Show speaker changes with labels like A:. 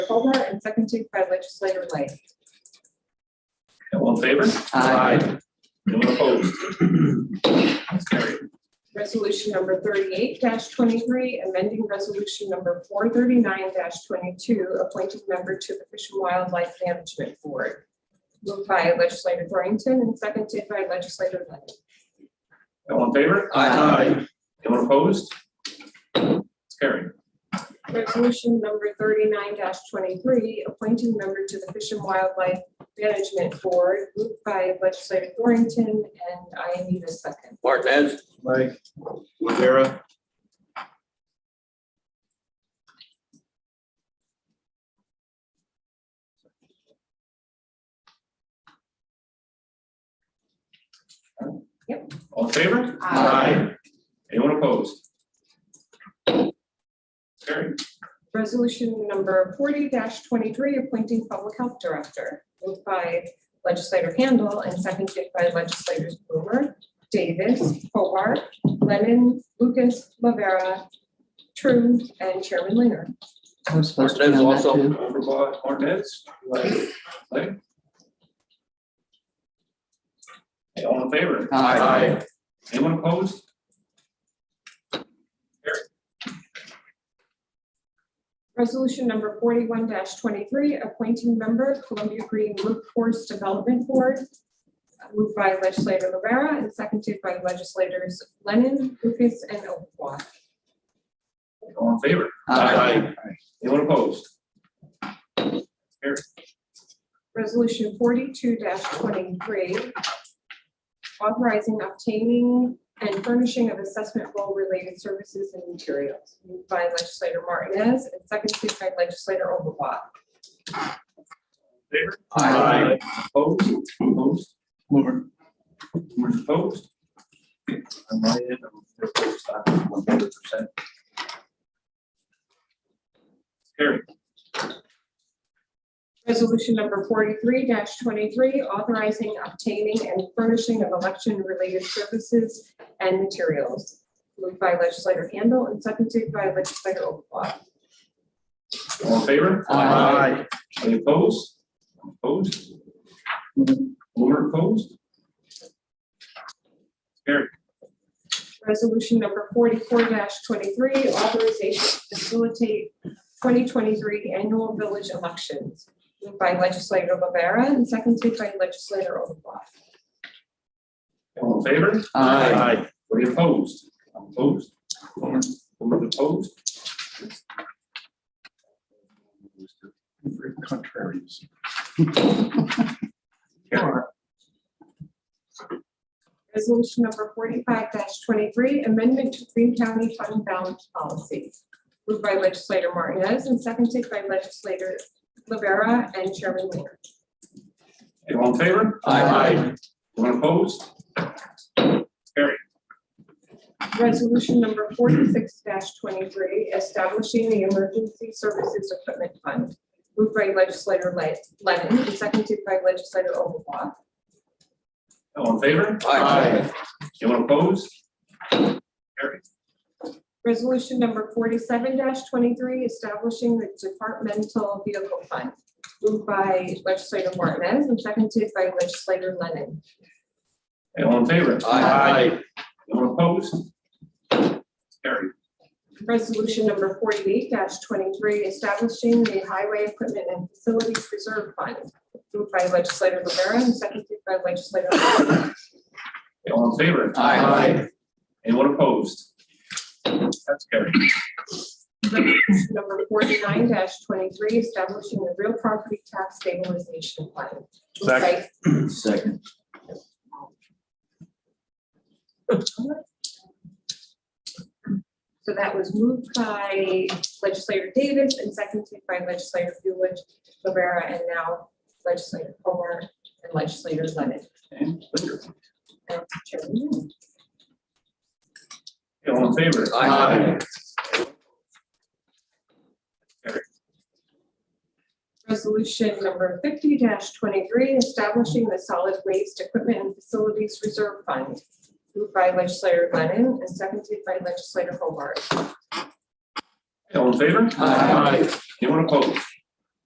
A: Holder and seconded by legislator Lang.
B: All in favor? Anyone opposed? That's carried.
A: Resolution number thirty-eight twenty-three, amending resolution number four thirty-nine twenty-two, appointing member to the Fish and Wildlife Management Board. Moved by legislator Dorrington and seconded by legislator Lang.
B: All in favor?
C: Aye.
B: Anyone opposed? That's carried.
A: Resolution number thirty-nine twenty-three, appointing member to the Fish and Wildlife Management Board, moved by legislator Dorrington, and I need a second.
C: Martinez. Aye. Rivera.
B: All in favor? Anyone opposed? Carried.
A: Resolution number forty twenty-three, appointing public health director, moved by legislator Handel and seconded by legislators Blumer, Davis, Hobart, Lennon, Lucas, Lavera, True, and Chairman Linger.
D: I was supposed to be
C: Martinez
D: on that
C: also.
D: too.
B: Overblock Martinez? Lang? Okay, All in favor?
D: Aye.
B: Anyone opposed?
A: Resolution number forty-one twenty-three, appointing member Columbia Green Workforce Development Board, moved by legislator Rivera and seconded by legislators Lennon, Lucas, and Overbaugh.
B: All in favor? Anyone opposed?
A: Resolution forty-two twenty-three, authorizing obtaining and furnishing of assessment role-related services and materials, moved by legislator Martinez and seconded by legislator Overbaugh.
B: Favor?
D: Aye.
B: Opposed? Opposed?
C: Mover.
B: Who's opposed?
C: On my end, I'm opposed, I'm one hundred percent.
B: Carried.
A: Resolution number forty-three twenty-three, authorizing obtaining and furnishing of election-related services and materials, moved by legislator Handel and seconded by legislator Overbaugh.
B: All in favor?
D: Aye.
B: Any opposed? Opposed? Mover opposed?
A: Resolution number forty-four twenty-three, authorization to facilitate twenty twenty-three annual village elections, moved by legislator Rivera and seconded by legislator Overbaugh.
B: All in favor?
D: Aye.
B: Any opposed? Opposed? Mover Mover opposed?
C: Very contrarians.
B: Carried.
A: Resolution number forty-five twenty-three, amendment to Green County Fund Balance Policy, moved by legislator Martinez and seconded by legislator Rivera and Chairman Linger.
B: Okay, All in favor?
D: Aye.
B: Anyone opposed?
A: Resolution number forty-six twenty-three, establishing the Emergency Services Equipment Fund, moved by legislator Le- Lennon and seconded by legislator Overbaugh.
B: All in favor?
C: Aye.
B: Anyone opposed? Carried.
A: Resolution number forty-seven twenty-three, establishing the Departmental Vehicle Fund, moved by legislator Martinez and seconded by legislator Lennon.
B: Okay, All in favor?
D: Aye.
B: Anyone opposed? Carried.
A: Resolution number forty-eight twenty-three, establishing the Highway Equipment and Facilities Reserve Fund, moved by legislator Rivera and seconded by legislator. Lang.
B: Okay, All in favor?
D: Aye.
B: Anyone opposed? That's carried.
A: Resolution Number forty-nine twenty-three, establishing the Real Property Tax Stabilization Fund. moved by-
C: Second.
A: So that was moved by legislator Davis and seconded by legislator Lewis, Rivera, and now legislator Comer and legislator Lennon.
B: And later.
A: And Chairman Linger.
B: Okay, All in favor?
C: Aye.
A: Resolution number fifty twenty-three, establishing the solid waste equipment and facilities reserve fund. Moved by legislator Lennon and seconded by legislator Hobart.
B: All in favor?
D: Aye.
B: Anyone opposed?